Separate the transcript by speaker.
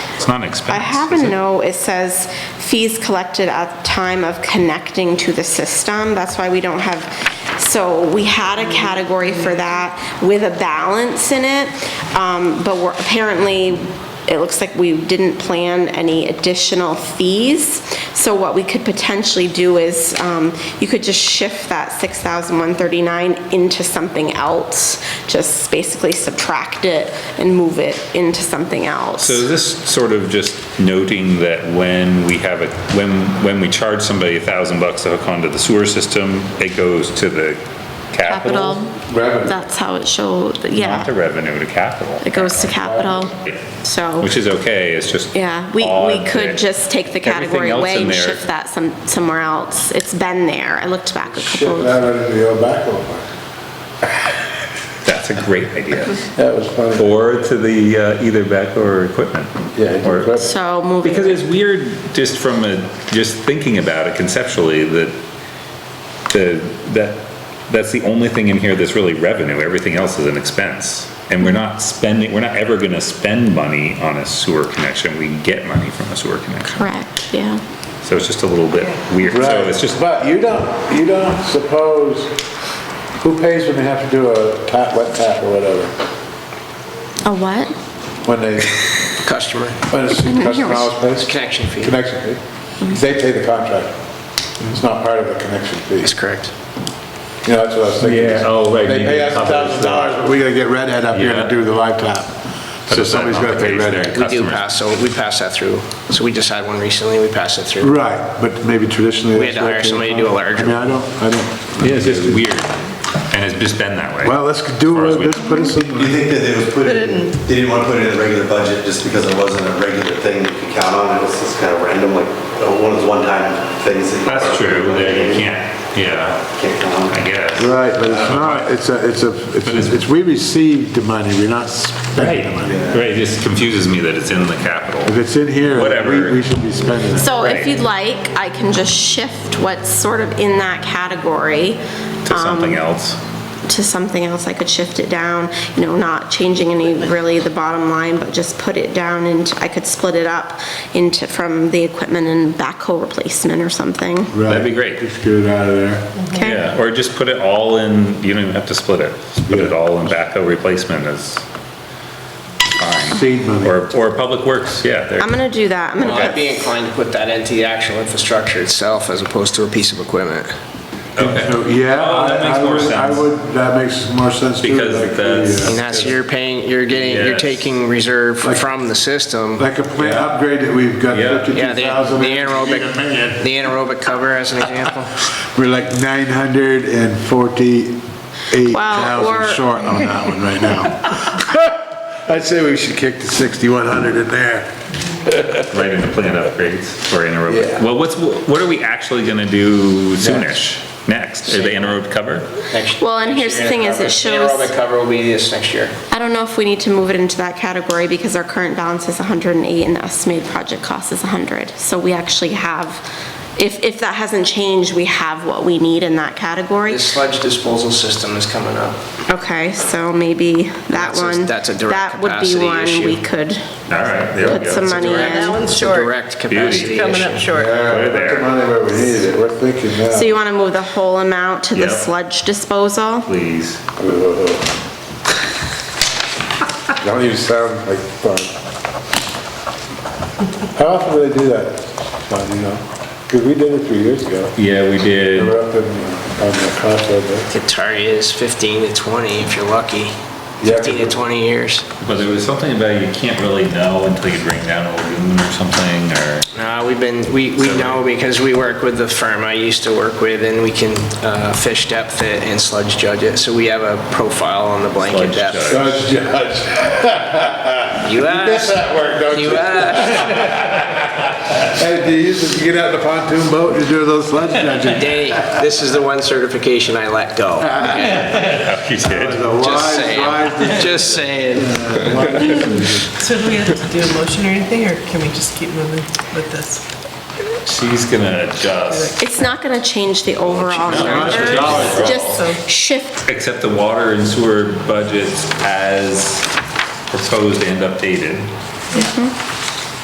Speaker 1: It's not an expense.
Speaker 2: I have
Speaker 1: is
Speaker 2: a
Speaker 1: it?
Speaker 2: note, it says fees collected at time of connecting to the system. That's why we don't have, so we had a category for that with a balance in it, um, but we're, apparently, it looks like we didn't plan any additional fees. So what we could potentially do is, um, you could just shift that 6,139 into something else, just basically subtract it and move it into something else.
Speaker 1: So is this sort of just noting that when we have a, when, when we charge somebody a thousand bucks to hook onto the sewer system, it goes to the
Speaker 3: Capital.
Speaker 1: capital?
Speaker 4: Revenue.
Speaker 3: That's how it showed,
Speaker 1: Not to
Speaker 3: yeah.
Speaker 1: revenue, to
Speaker 3: It
Speaker 1: capital,
Speaker 3: goes to capital, so,
Speaker 1: which is okay, it's just.
Speaker 2: Yeah, we,
Speaker 1: odd
Speaker 2: we could
Speaker 1: that
Speaker 2: just take the
Speaker 1: everything
Speaker 2: category
Speaker 1: else
Speaker 2: away
Speaker 1: in
Speaker 2: and
Speaker 1: there-
Speaker 2: shift that some, somewhere else. It's been there. I looked back a
Speaker 4: Ship
Speaker 2: couple
Speaker 4: that
Speaker 2: of,
Speaker 4: right into your backhoe park.
Speaker 1: That's a great idea.
Speaker 4: That was funny.
Speaker 1: Or to the, uh, either back or equipment.
Speaker 4: Yeah, the
Speaker 1: Or-
Speaker 4: equipment.
Speaker 2: so moving.
Speaker 1: Because it's weird, just from a, just thinking about it conceptually, that, the, that, that's the only thing in here that's really revenue, everything else is an expense. And we're not spending, we're not ever gonna spend money on a sewer connection, we get money from a sewer connection.
Speaker 3: correct, yeah.
Speaker 1: So it's just a little bit weird, so it's just,
Speaker 4: Right, but you don't, you don't suppose, who pays when they have to do a tap, wet tap or whatever?
Speaker 3: A what?
Speaker 4: When they,
Speaker 5: customer,
Speaker 4: when it's
Speaker 3: I don't hear
Speaker 4: customer
Speaker 3: what-
Speaker 4: always pays?
Speaker 5: connection fee. Mm-hmm.
Speaker 4: Connection fee. They pay the contractor. It's not part of the connection fee.
Speaker 5: That's correct.
Speaker 4: You know, that's what I was thinking.
Speaker 1: Yeah. Oh, right,
Speaker 4: They
Speaker 1: you
Speaker 4: pay
Speaker 1: need
Speaker 4: us
Speaker 1: to
Speaker 4: a
Speaker 1: cover
Speaker 4: thousand
Speaker 1: the-
Speaker 4: dollars, but we gotta get Red Hat up here
Speaker 1: Yeah.
Speaker 4: to do the live tap. So
Speaker 1: is that
Speaker 4: somebody's gotta pay
Speaker 1: not the case
Speaker 4: Red Hat.
Speaker 1: then?
Speaker 5: We do pass, so we pass that through. So we just had one recently, we passed it through.
Speaker 4: Right, but maybe traditionally.
Speaker 5: We had
Speaker 4: that's
Speaker 5: to
Speaker 4: where it came
Speaker 5: hire somebody to
Speaker 4: from.
Speaker 5: do a larger-
Speaker 4: I mean, I don't, I don't.
Speaker 1: it's just weird, and it's just been that way.
Speaker 4: Well, let's do,
Speaker 1: far as
Speaker 4: it.
Speaker 1: we-
Speaker 4: let's put us in.
Speaker 6: Do you think that it was put in, they didn't want to put it in the regular budget just because it wasn't a regular thing you could count on? It was just kind of random, like uh, one of those one-time things that you...
Speaker 1: That's true, that you can't, yeah,
Speaker 6: Can't count on.
Speaker 1: I guess.
Speaker 4: Right, but it's not, it's a, it's a,
Speaker 1: But it's-
Speaker 4: it's, it's, we received the money, we're not spending the money.
Speaker 1: Right, it just confuses me that it's in the capital.
Speaker 4: If it's in here,
Speaker 1: Whatever.
Speaker 4: we, we should be spending it.
Speaker 2: So if
Speaker 1: Right.
Speaker 2: you'd like, I can just shift what's sort of in that category
Speaker 1: to something
Speaker 2: Um,
Speaker 1: else.
Speaker 2: to something else. I could shift it down, you know, not changing any really the bottom line, but just put it down and I could split it up into, from the equipment and backhoe replacement or something.
Speaker 4: Right.
Speaker 1: That'd be great.
Speaker 4: Just get it out of there.
Speaker 2: Okay?
Speaker 1: Yeah, or just put it all in, you don't even have to split it. Just Put it all in backhoe replacement is fine.
Speaker 4: Seed money.
Speaker 1: Or, or public works, yeah, there,
Speaker 2: I'm gonna do that. I'm
Speaker 5: Well,
Speaker 2: gonna
Speaker 5: I'd be inclined to put that into the actual infrastructure itself as opposed to a piece of equipment.
Speaker 4: So, Yeah,
Speaker 1: Oh, that
Speaker 4: I,
Speaker 1: makes
Speaker 4: I
Speaker 1: more
Speaker 4: would, I
Speaker 1: sense.
Speaker 4: would, that makes more sense too.
Speaker 1: Because
Speaker 4: like the,
Speaker 1: that's-
Speaker 4: uh,
Speaker 5: I mean, that's, you're paying, you're getting, you're
Speaker 1: Yes.
Speaker 5: taking reserve from the system.
Speaker 4: Like a plant upgrade that we've got
Speaker 1: Yeah.
Speaker 5: Yeah, the the
Speaker 4: fifty-two thousand.
Speaker 5: anaerobic, the anaerobic cover as an example.
Speaker 4: We're like nine hundred and forty-eight
Speaker 2: Well, or-
Speaker 4: thousand short on that one right now. I'd say we should kick the sixty-one hundred in there.
Speaker 1: right in the plant upgrades or anaerobic.
Speaker 4: Yeah.
Speaker 1: Well, what's, what are we actually gonna do soonish, next? Is the anaerobic cover?
Speaker 5: Next-
Speaker 2: Well, and here's the thing is it shows-
Speaker 5: Anaerobic cover will be this next year.
Speaker 2: I don't know if we need to move it into that category because our current balance is 108 and the estimated project cost is 100. So we actually have, if, if that hasn't changed, we have what we need in that category.
Speaker 5: The sludge disposal system is coming up.
Speaker 2: Okay, so maybe that
Speaker 5: That's a-
Speaker 2: one.
Speaker 5: that's a direct
Speaker 2: That
Speaker 5: capacity
Speaker 2: would be one
Speaker 5: issue.
Speaker 2: we could
Speaker 1: All right, there we
Speaker 2: put
Speaker 1: go.
Speaker 2: some
Speaker 1: It's a
Speaker 2: money
Speaker 5: direct-
Speaker 2: in.
Speaker 7: That one's
Speaker 5: It's a
Speaker 7: short.
Speaker 5: direct capacity
Speaker 7: Coming up
Speaker 5: issue.
Speaker 7: short.
Speaker 4: Yeah,
Speaker 1: Right
Speaker 4: put
Speaker 1: there.
Speaker 4: the money where we need it, we're thinking now.
Speaker 2: So you want to move the whole amount to the
Speaker 1: Yeah.
Speaker 2: sludge disposal?
Speaker 1: Please.
Speaker 4: Don't even sound like fun. How often do they do that, Don, you know? 'Cause we did it three years ago.
Speaker 1: Yeah, we
Speaker 4: We
Speaker 1: did.
Speaker 4: were up in, uh, on the crossroad
Speaker 5: The target is 15 to 20 if you're lucky. 15 to 20 years.
Speaker 1: But there was something about you can't really know until you bring down a lagoon or something, or.
Speaker 5: No, we've been, we, we know because we work with the firm I used to work with and we can uh, fish depth it and sludge judge it. So we have a profile on the blanket
Speaker 1: Sludge
Speaker 5: depth.
Speaker 1: judge.
Speaker 4: there. Judge, judge.
Speaker 5: You asked,
Speaker 4: That worked, don't
Speaker 5: you
Speaker 4: you?
Speaker 5: asked.
Speaker 4: Hey, do you used to get out in the pontoon boat and do those sledge judging?
Speaker 5: Danny, this is the one certification I let go.
Speaker 1: You did.
Speaker 4: The
Speaker 5: Just
Speaker 4: wise, wise,
Speaker 5: saying, just saying.
Speaker 7: So do we have to do a motion or anything, or can we just keep moving with this?
Speaker 1: She's gonna adjust.
Speaker 2: It's not going to change the overall
Speaker 1: it's
Speaker 2: numbers,
Speaker 1: dollars, bro.
Speaker 2: just shift,
Speaker 1: accept the water and sewer budgets as proposed and updated.